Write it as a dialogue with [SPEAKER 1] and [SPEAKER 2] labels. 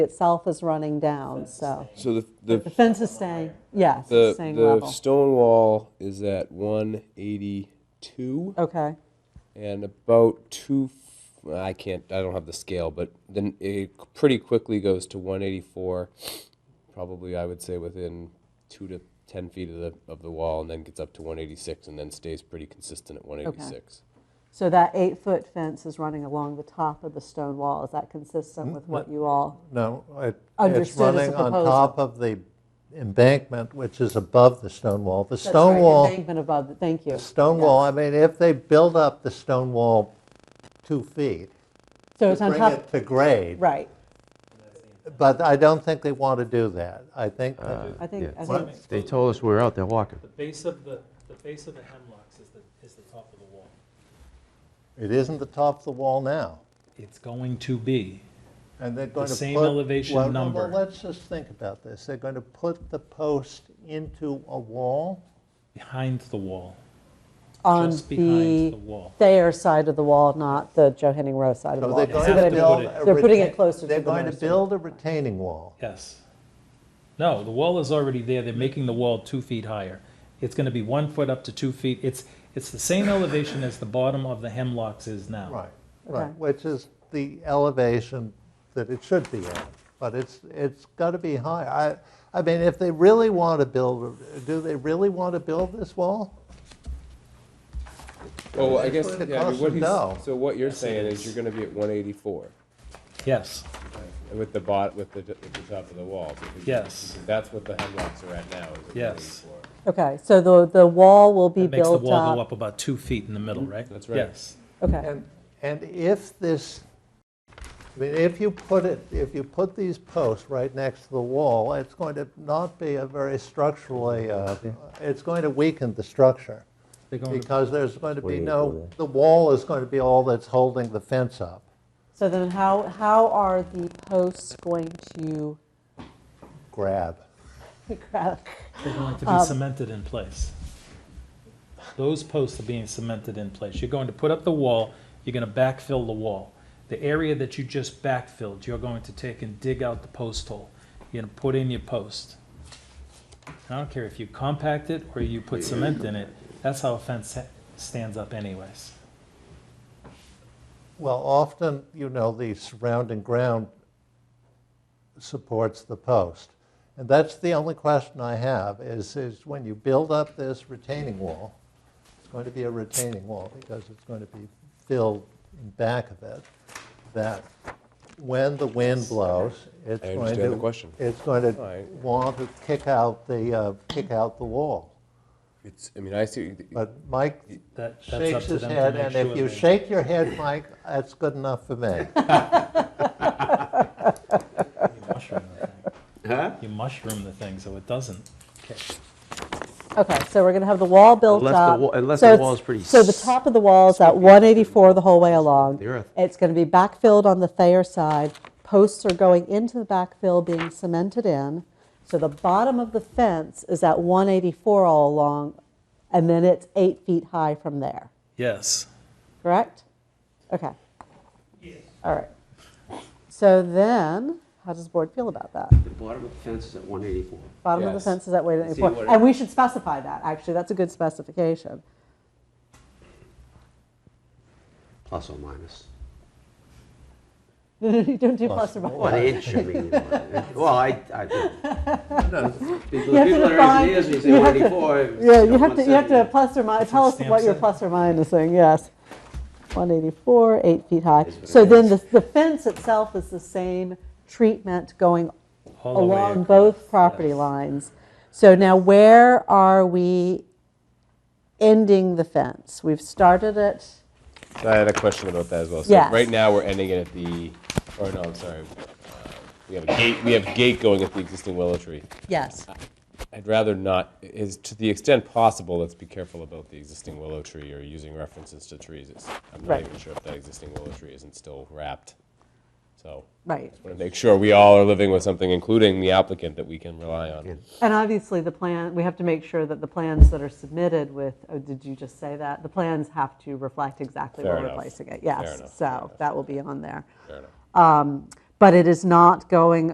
[SPEAKER 1] itself is running down, so.
[SPEAKER 2] So the, the,
[SPEAKER 1] The fence is staying, yes,
[SPEAKER 2] the,
[SPEAKER 1] it's staying
[SPEAKER 2] the
[SPEAKER 1] level.
[SPEAKER 2] stone wall is at one eighty-two
[SPEAKER 1] Okay,
[SPEAKER 2] and about two, f- I can't, I don't have the scale, but then it pretty quickly goes to one eighty-four. Probably, I would say within two to ten feet of the, of the wall and then gets up to one eighty-six and then stays pretty consistent at one eighty-six.
[SPEAKER 1] so that eight-foot fence is running along the top of the stone wall. Is that consistent with what you all,
[SPEAKER 3] No, it- it's
[SPEAKER 1] Understood as a
[SPEAKER 3] running on
[SPEAKER 1] proposal.
[SPEAKER 3] top of the embankment, which is above the stone wall. The
[SPEAKER 1] that's right,
[SPEAKER 3] stone
[SPEAKER 1] the
[SPEAKER 3] wall,
[SPEAKER 1] embankment above, the- thank you.
[SPEAKER 3] the stone wall, I mean, if they build up the stone wall two feet,
[SPEAKER 1] So
[SPEAKER 3] to
[SPEAKER 1] it's on
[SPEAKER 3] bring
[SPEAKER 1] top,
[SPEAKER 3] it to grade,
[SPEAKER 1] right,
[SPEAKER 3] but I don't think they want to do that. I think, that-
[SPEAKER 1] I think, I
[SPEAKER 4] Yeah.
[SPEAKER 1] think,
[SPEAKER 4] They told us we're out there walking.
[SPEAKER 5] The base of the, the base of the hemlocks is the, is the top of the wall.
[SPEAKER 3] it isn't the top of the wall now.
[SPEAKER 5] It's going to be.
[SPEAKER 3] And they're going to put...
[SPEAKER 5] same elevation
[SPEAKER 3] well,
[SPEAKER 5] number.
[SPEAKER 3] Well, let's just think about this. They're going to put the post into a wall?
[SPEAKER 5] Behind the wall.
[SPEAKER 1] on
[SPEAKER 5] Just behind the
[SPEAKER 1] the
[SPEAKER 5] wall.
[SPEAKER 1] Thayer side of the wall, not the Joe Henning Rowe side of the
[SPEAKER 3] So
[SPEAKER 1] wall.
[SPEAKER 3] they're
[SPEAKER 1] See
[SPEAKER 3] going
[SPEAKER 1] what I
[SPEAKER 3] to
[SPEAKER 1] mean?
[SPEAKER 3] build...
[SPEAKER 5] They're
[SPEAKER 3] a
[SPEAKER 1] They're putting it
[SPEAKER 3] retain-
[SPEAKER 1] closer to the
[SPEAKER 3] They're going to
[SPEAKER 1] nursery.
[SPEAKER 3] build a retaining wall.
[SPEAKER 5] Yes. No, the wall is already there. They're making the wall two feet higher. It's gonna be one foot up to two feet. It's, it's the same elevation as the bottom of the hemlocks is now.
[SPEAKER 3] Right,
[SPEAKER 1] Okay.
[SPEAKER 3] right, which is the elevation that it should be at, but it's, it's got to be high. I, I mean, if they really want to build, do they really want to build this wall?
[SPEAKER 2] Well, Oh, I guess,
[SPEAKER 3] what it
[SPEAKER 2] yeah, I mean,
[SPEAKER 3] costs
[SPEAKER 2] what
[SPEAKER 3] to
[SPEAKER 2] he's,
[SPEAKER 3] know.
[SPEAKER 2] so what you're
[SPEAKER 5] Yes, it
[SPEAKER 2] saying is
[SPEAKER 5] is.
[SPEAKER 2] you're gonna be at one eighty-four.
[SPEAKER 5] Yes,
[SPEAKER 2] With the bot, with the, with the top of the wall. because
[SPEAKER 5] Yes.
[SPEAKER 2] That's what the hemlocks are at now, is at
[SPEAKER 5] Yes.
[SPEAKER 2] 184.
[SPEAKER 1] Okay, so the, the wall will be
[SPEAKER 5] it makes the
[SPEAKER 1] built
[SPEAKER 5] wall go
[SPEAKER 1] up. Mhm.
[SPEAKER 5] up about two feet in the middle, right?
[SPEAKER 2] That's right.
[SPEAKER 5] Yes.
[SPEAKER 1] Okay,
[SPEAKER 3] And, and if this, I mean, if you put it, if you put these posts right next to the wall, it's going to not be a very structurally, uh, it's going to weaken the structure,
[SPEAKER 5] They're going to-
[SPEAKER 3] because there's going to be
[SPEAKER 4] Way
[SPEAKER 3] no,
[SPEAKER 4] over there.
[SPEAKER 3] the wall is going to be all that's holding the fence up.
[SPEAKER 1] so then how, how are the posts going to
[SPEAKER 3] Grab.
[SPEAKER 5] They're going to be
[SPEAKER 1] Um,
[SPEAKER 5] cemented in place. Those posts are being cemented in place. You're going to put up the wall, you're gonna backfill the wall. The area that you just backfilled, you're going to take and dig out the post hole. You're gonna put in your post. I don't care if you compact it or you put cement in it, that's how a fence ha- stands up anyways.
[SPEAKER 3] Well, often, you know, the surrounding ground supports the post. And that's the only question I have, is, is when you build up this retaining wall, it's going to be a retaining wall because it's going to be filled in back of it, that when the wind blows, it's
[SPEAKER 2] I
[SPEAKER 3] going to...
[SPEAKER 2] understand the question.
[SPEAKER 3] It's going to
[SPEAKER 2] Right.
[SPEAKER 3] want to kick out the, uh, kick out the wall.
[SPEAKER 2] It's, I mean, I see,
[SPEAKER 3] But Mike
[SPEAKER 5] That, that's up
[SPEAKER 3] shakes
[SPEAKER 5] to
[SPEAKER 3] his
[SPEAKER 5] them
[SPEAKER 3] head,
[SPEAKER 5] to make
[SPEAKER 3] and
[SPEAKER 5] sure.
[SPEAKER 3] if you
[SPEAKER 5] they-
[SPEAKER 3] shake your head, Mike, that's good enough for me.
[SPEAKER 5] You mushroom the thing. You mushroom the thing so it doesn't.
[SPEAKER 1] Okay, so we're going to have the wall built
[SPEAKER 4] Unless the
[SPEAKER 1] up.
[SPEAKER 4] wa- unless
[SPEAKER 1] So
[SPEAKER 4] the
[SPEAKER 1] it's-
[SPEAKER 4] wall is pretty
[SPEAKER 1] So the top of the wall is at 184 the whole way along.
[SPEAKER 4] The earth.
[SPEAKER 1] It's going to be backfilled on the Thayer side. Posts are going into the backfill, being cemented in. So the bottom of the fence is at 184 all along, and then it's eight feet high from there,
[SPEAKER 5] Yes.
[SPEAKER 1] correct? Okay. All right. So then, how does the board feel about that?
[SPEAKER 4] The bottom of the fence is at 184.
[SPEAKER 1] Bottom of the
[SPEAKER 2] Yes.
[SPEAKER 1] fence is that way
[SPEAKER 4] See what
[SPEAKER 1] four,
[SPEAKER 4] it-
[SPEAKER 1] and we should specify that, actually, that's a good specification.
[SPEAKER 4] Plus or minus.
[SPEAKER 1] No, no, you don't do plus or minus.
[SPEAKER 4] Well, it should be. either one. Well, I, I do.
[SPEAKER 1] You have to
[SPEAKER 4] People people that are
[SPEAKER 1] define-
[SPEAKER 4] engineers, when you say
[SPEAKER 1] you have to-
[SPEAKER 4] 184. it's
[SPEAKER 1] Yeah, you
[SPEAKER 4] got
[SPEAKER 1] have to, you have to
[SPEAKER 4] 170.
[SPEAKER 1] plus or minus, tell us
[SPEAKER 5] stamp
[SPEAKER 1] what you're
[SPEAKER 5] said.
[SPEAKER 1] plus or minusing, yes. 184, eight feet high.
[SPEAKER 4] what
[SPEAKER 1] So
[SPEAKER 4] it
[SPEAKER 1] then
[SPEAKER 4] is.
[SPEAKER 1] the, the fence itself is the same treatment going
[SPEAKER 5] All the way
[SPEAKER 1] along
[SPEAKER 5] across,
[SPEAKER 1] both property
[SPEAKER 5] yes.
[SPEAKER 1] lines. So now where are we ending the fence? We've started it,
[SPEAKER 2] I had a question about that as well. So
[SPEAKER 1] Yes.
[SPEAKER 2] right now, we're ending it at the, or no, I'm sorry. uh, We have a gate, we have gate going at the existing willow tree.
[SPEAKER 1] yes.
[SPEAKER 2] I'd rather not, is, to the extent possible, let's be careful about the existing willow tree or using references to trees. It's- I'm not
[SPEAKER 1] Right.
[SPEAKER 2] even sure if that existing willow tree isn't still wrapped. So,
[SPEAKER 1] Right.
[SPEAKER 2] want to make sure we all are living with something, including the applicant, that we can rely on.
[SPEAKER 1] And obviously, the plan, we have to make sure that the plans that are submitted with, oh, did you just say that? The plans have to reflect exactly
[SPEAKER 2] Fair
[SPEAKER 1] what we're
[SPEAKER 2] enough.
[SPEAKER 1] replacing it,
[SPEAKER 2] Fair enough,
[SPEAKER 1] yes.
[SPEAKER 2] fair
[SPEAKER 1] So that will be on there.
[SPEAKER 2] Fair enough.
[SPEAKER 1] But it Um, is not going